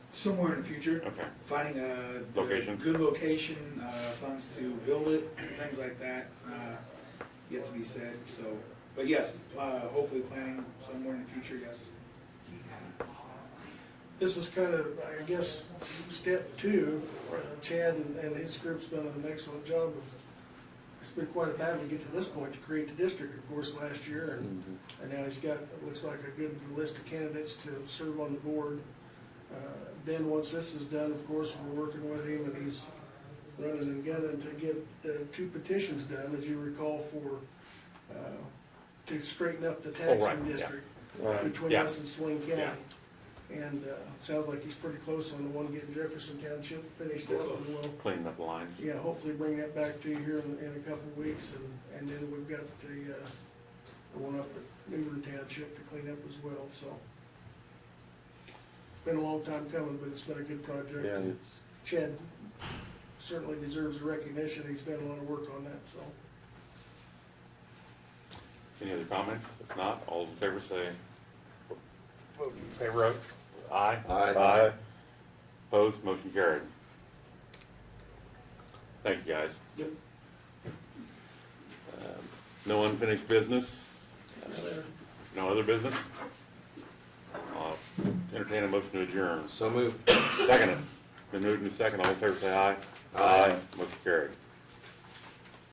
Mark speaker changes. Speaker 1: somewhere in the future,
Speaker 2: Okay,
Speaker 1: finding a. a
Speaker 2: Location.
Speaker 1: Good location, uh, funds to build it, things like that, uh, yet to be said, so, but yes, uh, hopefully planning somewhere in the future, yes.
Speaker 3: This is kind of, I guess, step two. Uh, Chad and, and his group's done an excellent job of, it's been quite a battle to get to this point to create the district, of course, last year. And,
Speaker 2: Mm-hmm.
Speaker 3: and now he's got, it looks like a good list of candidates to serve on the board. Uh, Then, once this is done, of course, we're working with him and he's running and gunning to get the two petitions done, as you recall, for, uh, to straighten up the
Speaker 2: Oh, right,
Speaker 3: taxing
Speaker 2: yeah.
Speaker 3: district
Speaker 2: Right.
Speaker 3: between
Speaker 2: Yeah.
Speaker 3: us and Swain
Speaker 2: Yeah.
Speaker 3: County. And uh, it sounds like he's pretty close on the one getting Jefferson Township finished up. and we'll
Speaker 2: cleaning up the lines.
Speaker 3: Yeah, hopefully bring that back to you here in, in a couple of weeks, and, and then we've got the, uh, the one up at Newbern Township to clean up as well, so. Been a long time coming, but it's been a good project.
Speaker 4: Yeah,
Speaker 3: and
Speaker 4: it's,
Speaker 3: Chad certainly deserves the recognition, he's done a lot of work on that, so.
Speaker 2: Any other comments? If not, all in favor say, vote in favor of, aye.
Speaker 4: aye,
Speaker 2: Opposed, motion carried. Thank you, guys.
Speaker 1: Yep.
Speaker 2: Um, No unfinished business, no other business? I'll Entertain a motion to adjourn.
Speaker 4: so moved.
Speaker 2: Second, it. been moved and second, all in favor say aye.
Speaker 4: Aye.
Speaker 2: Motion carried.